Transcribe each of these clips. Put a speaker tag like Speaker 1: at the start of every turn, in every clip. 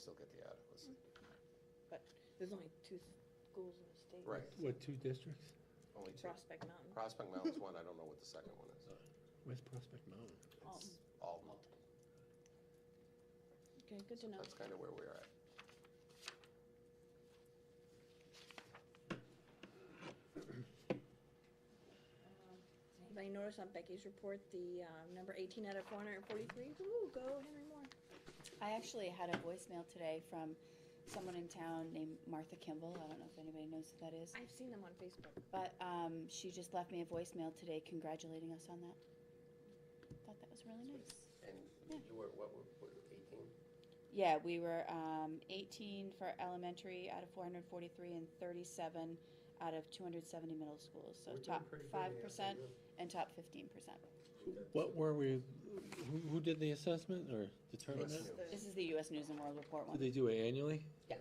Speaker 1: still get the adequacy.
Speaker 2: But there's only two schools in the state.
Speaker 1: Right,
Speaker 3: What, two districts?
Speaker 1: only two.
Speaker 2: Prospect Mountain,
Speaker 1: Prospect Mountain's one, I don't know what the second one is.
Speaker 3: Where's Prospect Mountain?
Speaker 1: It's Alton.
Speaker 2: okay, good to know.
Speaker 1: That's kind of where we're at.
Speaker 2: Um, Anybody notice on Becky's report, the um, number 18 out of 443? Woo, go Henry Moore.
Speaker 4: I actually had a voicemail today from someone in town named Martha Kimball. I don't know if anybody knows who that is.
Speaker 2: I've seen them on Facebook.
Speaker 4: But um, she just left me a voicemail today congratulating us on that. Thought that was really nice.
Speaker 5: And
Speaker 4: Yeah.
Speaker 5: you were, what, were- what, eighteen?
Speaker 4: Yeah, we were um, 18 for elementary out of 443 and 37 out of 270 middle schools. So top 5% and top 15%.
Speaker 3: What were we, who, who did the assessment or determined
Speaker 1: Yes.
Speaker 3: that?
Speaker 4: This is the U.S. News and World Report
Speaker 3: Do
Speaker 4: one.
Speaker 3: they do it annually?
Speaker 4: Yes.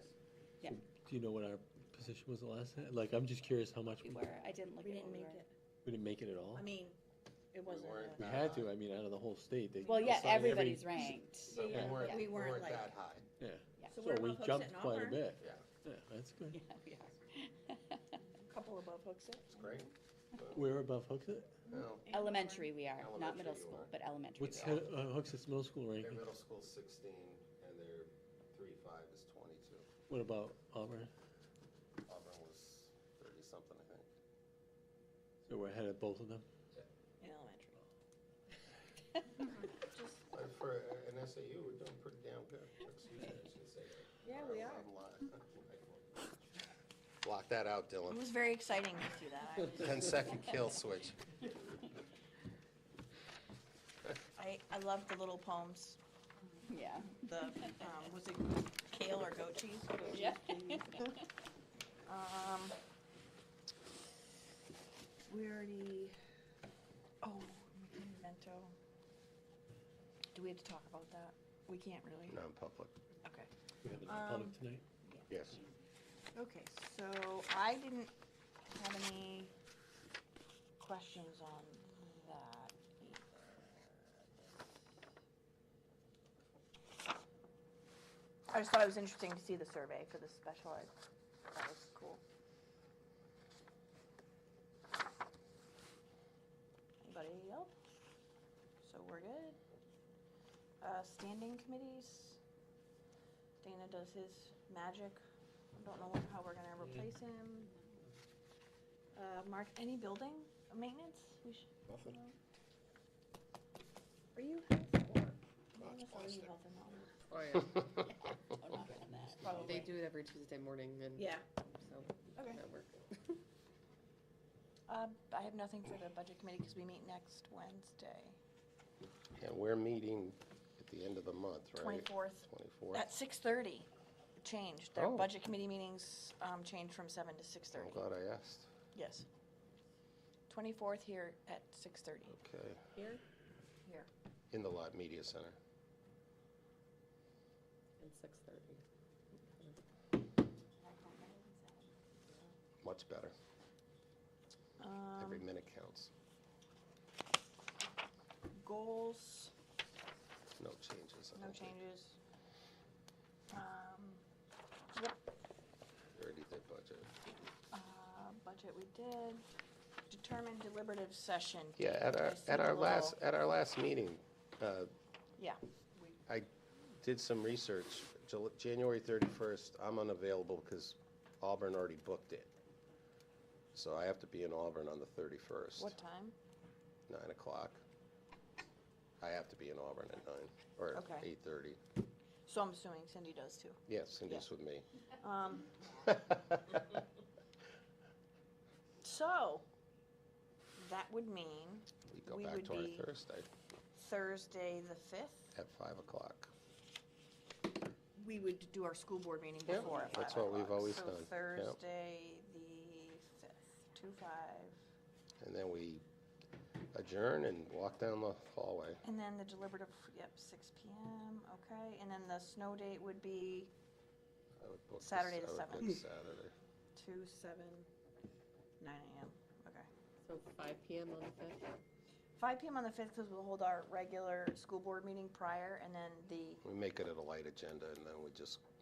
Speaker 4: Yeah.
Speaker 3: Do you know what our position was the last time? Like, I'm just curious how much,
Speaker 4: We
Speaker 3: we
Speaker 4: were. I didn't look
Speaker 2: We
Speaker 4: at
Speaker 2: didn't
Speaker 4: what we
Speaker 2: make
Speaker 4: were.
Speaker 2: it.
Speaker 3: we didn't make it at all?
Speaker 2: I mean, it wasn't.
Speaker 1: weren't-
Speaker 2: a-
Speaker 3: We had to, I mean, out of the whole state, they.
Speaker 4: Well, yeah,
Speaker 3: assigned every-
Speaker 4: everybody's ranked.
Speaker 1: But we
Speaker 2: Yeah,
Speaker 1: weren't,
Speaker 4: yeah.
Speaker 1: we
Speaker 2: We weren't
Speaker 1: weren't
Speaker 2: like-
Speaker 1: that high.
Speaker 2: So
Speaker 3: So
Speaker 2: we're
Speaker 3: we
Speaker 2: above Hooksett
Speaker 3: jumped
Speaker 2: and
Speaker 3: quite a
Speaker 2: Auburn.
Speaker 3: bit.
Speaker 1: Yeah.
Speaker 3: Yeah, that's good.
Speaker 4: Yeah, we are.
Speaker 2: Couple above Hooksett.
Speaker 1: It's great.
Speaker 3: We're above Hooksett?
Speaker 1: Well,
Speaker 2: and
Speaker 4: Elementary we are,
Speaker 1: Elementary
Speaker 4: not middle
Speaker 1: you
Speaker 4: school,
Speaker 1: are.
Speaker 4: but elementary.
Speaker 3: What's
Speaker 4: we
Speaker 3: Ho-
Speaker 4: are.
Speaker 3: uh, Hooksett's middle school
Speaker 1: their
Speaker 3: ranking?
Speaker 1: middle school's sixteen and their three-five is twenty-two.
Speaker 3: What about Auburn?
Speaker 1: Auburn was thirty-something, I think.
Speaker 3: So we're ahead of both of them?
Speaker 2: In elementary.
Speaker 1: But for uh, an SAU, we're doing pretty damn good. Excuse me, I should say that.
Speaker 2: Yeah,
Speaker 1: Or
Speaker 2: we
Speaker 1: I'm
Speaker 2: are.
Speaker 1: li- Block that out, Dylan.
Speaker 2: It was very exciting to see that. I was-
Speaker 1: 10 second kill switch.
Speaker 2: I, I love the little poems,
Speaker 4: Yeah.
Speaker 2: the, um, was it kale or goat cheese?
Speaker 4: Yeah.
Speaker 2: Um, we already, oh, memento. Do we have to talk about that? We can't really.
Speaker 1: Non-public.
Speaker 2: Okay.
Speaker 3: We have it in public
Speaker 2: Um,
Speaker 3: tonight?
Speaker 1: Yes.
Speaker 2: Okay, so I didn't have any questions on that either. I just thought it was interesting to see the survey for the special ed. That was cool. Anybody else? So we're good. Uh, standing committees. Dana does his magic. I don't know what- how we're gonna replace him. Uh, Mark, any building maintenance? We should.
Speaker 1: Nothing.
Speaker 2: Are you
Speaker 1: Oh,
Speaker 2: health or?
Speaker 1: it's
Speaker 2: Are you
Speaker 1: plastic.
Speaker 2: health or not?
Speaker 6: Oh, yeah.
Speaker 4: Don't knock on that.
Speaker 6: They do it every Tuesday morning and
Speaker 2: Yeah,
Speaker 6: so
Speaker 2: okay.
Speaker 6: that works.
Speaker 2: Uh, I have nothing for the budget committee because we meet next Wednesday,
Speaker 1: And we're meeting at the end of the month, right?
Speaker 2: twenty-fourth,
Speaker 1: Twenty-fourth.
Speaker 2: at six-thirty. It changed. Their
Speaker 1: Oh.
Speaker 2: budget committee meetings, um, changed from seven to
Speaker 1: I'm
Speaker 2: six-thirty.
Speaker 1: glad I asked.
Speaker 2: Yes. Twenty-fourth here at six-thirty.
Speaker 1: Okay.
Speaker 2: Here?
Speaker 1: In the Lot Media Center.
Speaker 6: And six thirty.
Speaker 1: Much better. Every
Speaker 2: Um,
Speaker 1: minute counts.
Speaker 2: goals,
Speaker 1: No changes. I
Speaker 2: no
Speaker 1: don't think.
Speaker 2: changes. Um,
Speaker 1: We Already did budget.
Speaker 2: uh, budget we did. Determine deliberative session.
Speaker 1: Yeah, at our,
Speaker 2: I see
Speaker 1: at
Speaker 2: the
Speaker 1: our last,
Speaker 2: little-
Speaker 1: at our last meeting, uh,
Speaker 2: Yeah.
Speaker 1: did some research. Jul- January 31st, I'm unavailable because Auburn already booked it. So I have to be in Auburn on the 31st.
Speaker 2: What time?
Speaker 1: 9 o'clock. I have to be in Auburn at 9, or
Speaker 2: Okay.
Speaker 1: 8:30.
Speaker 2: So I'm assuming Cindy does too.
Speaker 1: Yes, Cindy's with me.
Speaker 2: Um, so that would mean
Speaker 1: We go
Speaker 2: We
Speaker 1: back
Speaker 2: would
Speaker 1: to
Speaker 2: be-
Speaker 1: our Thursday
Speaker 2: Thursday the fifth,
Speaker 1: at 5 o'clock.
Speaker 2: we would do our school board meeting
Speaker 1: Yeah,
Speaker 2: before at five
Speaker 1: that's what we've
Speaker 2: o'clock.
Speaker 1: always
Speaker 2: So
Speaker 1: done, yeah.
Speaker 2: Thursday the fifth, two five.
Speaker 1: And then we adjourn and walk down the hallway.
Speaker 2: And then the deliberative, yep, six P M, okay. And then the snow date would be
Speaker 1: I would book this-
Speaker 2: Saturday the
Speaker 1: I would book
Speaker 2: 7th.
Speaker 1: Saturday.
Speaker 2: two, seven, nine A M, okay.
Speaker 6: So five PM on the fifth?
Speaker 2: Five PM on the fifth, because we'll hold our regular school board meeting prior, and then the
Speaker 1: We make it at a light agenda, and then we just